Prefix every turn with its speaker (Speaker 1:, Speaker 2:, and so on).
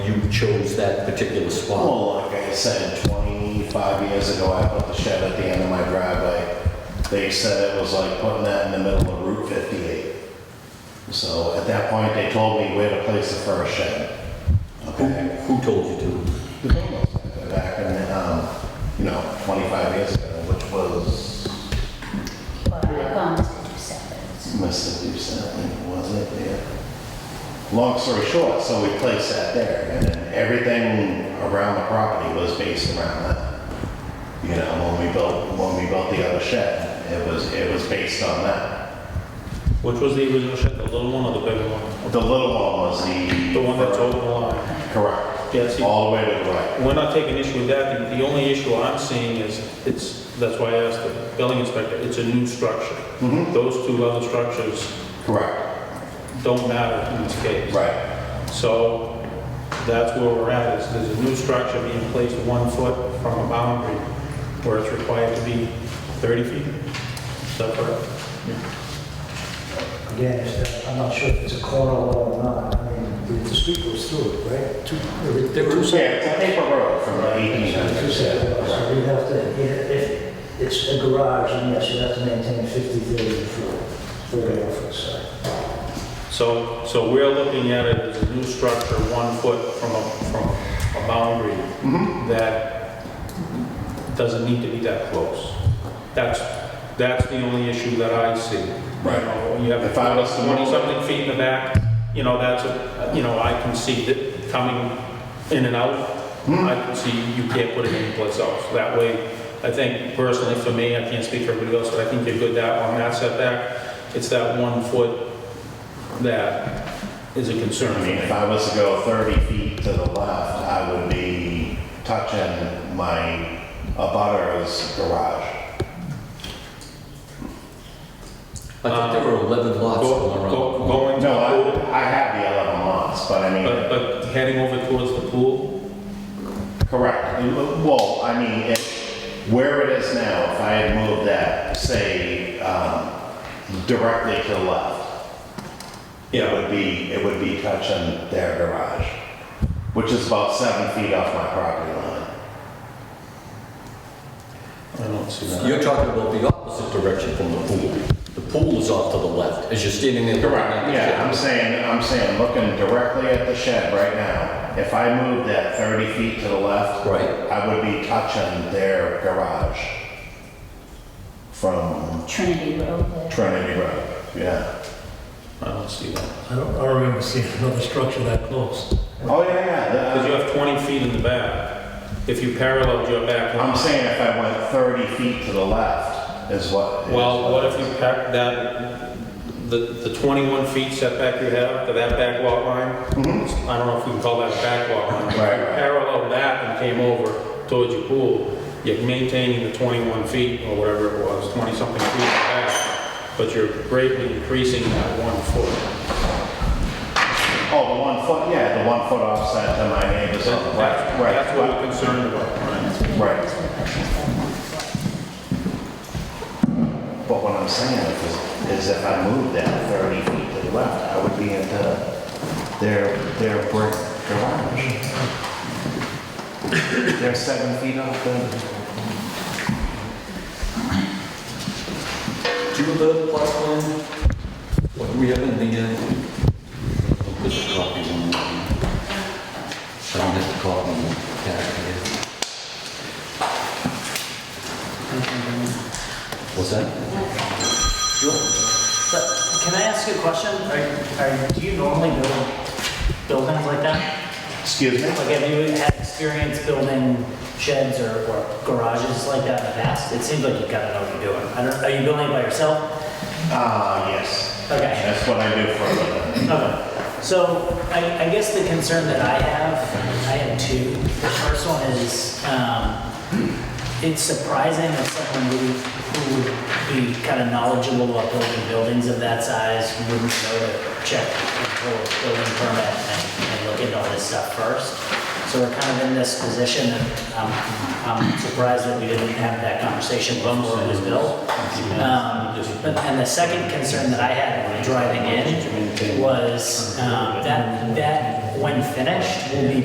Speaker 1: you chose that particular spot.
Speaker 2: Well, like I said, 25 years ago, I put the shed at the end of my driveway. They said it was like putting that in the middle of Route 58. So at that point, they told me where to place the first shed.
Speaker 1: Who,
Speaker 2: Okay?
Speaker 1: who told you to?
Speaker 2: The building was Back in, um, you know, 25 years ago, which was,
Speaker 3: Well, I've gone to do sevens.
Speaker 2: must have been something, was it? Yeah. Long story short, so we placed that there, and then everything around the property was based around that. You know, when we built, when we built the other shed, it was, it was based on that.
Speaker 4: Which was the original shed, the little one or the bigger one?
Speaker 2: The little one was the.
Speaker 4: The one that's over the line.
Speaker 2: Correct,
Speaker 4: Yeah, see,
Speaker 2: all the way to the right.
Speaker 4: we're not taking issue with that, the the only issue I'm seeing is, it's, that's why I asked the building inspector, it's a new structure.
Speaker 2: Mhm.
Speaker 4: Those two other structures
Speaker 2: Correct,
Speaker 4: don't matter in this case.
Speaker 2: right,
Speaker 4: So that's where we're at, is there's a new structure being placed one foot from a boundary where it's required to be 30 feet. Is that correct?
Speaker 5: Again, it's- I'm not sure if it's a corner wall or not. I mean, the- the street goes through it, right? Two, there were- there were two
Speaker 2: yeah,
Speaker 5: separate.
Speaker 2: it's a paper road from the
Speaker 5: Two
Speaker 2: 1800s,
Speaker 5: separate, lots,
Speaker 2: yeah.
Speaker 5: so you have to, if- if it's a garage, and yes, you have to maintain 50, 30, and 40, 30 off the side.
Speaker 4: So, so we're looking at it as a new structure, one foot from a, from a boundary
Speaker 2: Mm-hmm.
Speaker 4: that doesn't need to be that close. That's, that's the only issue that I see.
Speaker 2: Right.
Speaker 4: You have
Speaker 2: If I was to move-
Speaker 4: 20-something feet in the back, you know, that's, a you know, I can see that coming in and out.
Speaker 2: Mm-hmm.
Speaker 4: I can see you can't put it anyplace else. That way, I think personally for me, I can't speak for everybody else, but I think you're good that, on that setback, it's that one foot that is a concern.
Speaker 2: I
Speaker 4: for
Speaker 2: mean, if
Speaker 4: me.
Speaker 2: I was to go 30 feet to the left, I would be touching my abutter's garage.
Speaker 1: I thought there were 11 lots
Speaker 4: Go-
Speaker 1: going
Speaker 4: go-
Speaker 1: around.
Speaker 4: Going to
Speaker 2: No,
Speaker 4: the
Speaker 2: I,
Speaker 4: pool,
Speaker 2: I have the 11 lots, but I
Speaker 4: but,
Speaker 2: mean,
Speaker 4: but heading over towards the pool,
Speaker 2: correct. Well, I mean, if, where it is now, if I had moved that, say, um, directly to the left, it would be, it would be touching their garage, which is about seven feet off my property line.
Speaker 4: I don't see that.
Speaker 1: You're talking about the opposite direction from the pool. The pool is off to the left as you're standing there. looking at the
Speaker 2: Yeah,
Speaker 1: shed.
Speaker 2: I'm saying, I'm saying, looking directly at the shed right now, if I moved that 30 feet to the left,
Speaker 1: Right.
Speaker 2: I would be touching their garage from
Speaker 3: Trinity Road there.
Speaker 2: Trinity Road, yeah.
Speaker 4: I don't see that.
Speaker 6: I don't, I don't remember seeing another structure that close.
Speaker 2: Oh, yeah, yeah,
Speaker 4: Because you
Speaker 2: the-
Speaker 4: have 20 feet in the back. If you paralleled your back
Speaker 2: I'm
Speaker 4: line,
Speaker 2: saying if I went 30 feet to the left is what. is
Speaker 4: well, what if you pack that, the, the 21 feet setback you have to that back lot line? I don't know if we can call that a back lot line.
Speaker 2: Mm-hmm. Right.
Speaker 4: Parallel that and came over towards your pool, you're maintaining the 21 feet or whatever it was, 20-something feet back, but you're greatly increasing that one foot.
Speaker 2: Oh, the one foot, yeah, the one foot offset to my neighbors on the left,
Speaker 4: That's-
Speaker 2: right.
Speaker 4: That's what we're concerned about.
Speaker 3: That's what it
Speaker 2: Right.
Speaker 3: is, but that's that one foot.
Speaker 2: But what I'm saying is, is if I moved that 30 feet to the left, I would be into their, their brick garage. They're seven feet off the,
Speaker 1: Do you have the plot plan? What do we have in the, uh, this is copy one. I don't have to copy one. What's that? Sure.
Speaker 7: But Can I ask you a question? Are, are, do you normally build buildings like that?
Speaker 2: excuse me?
Speaker 7: Like, have you had experience building sheds or, or garages like that in the past? It seems like you kind of know what you're doing. I don't, are you building it by yourself?
Speaker 2: Ah, yes.
Speaker 7: Okay.
Speaker 2: That's what I do for a living.
Speaker 7: Okay, so I, I guess the concern that I have, I have two. The first one is, um, it's surprising that someone who, who would be kind of knowledgeable about building buildings of that size wouldn't know to check the full building permit and, and look into all this stuff first. So we're kind of in this position and I'm, I'm surprised that we didn't have that conversation before it was built. Um, but- And the second concern that I had when driving in was um, that, that when finished will be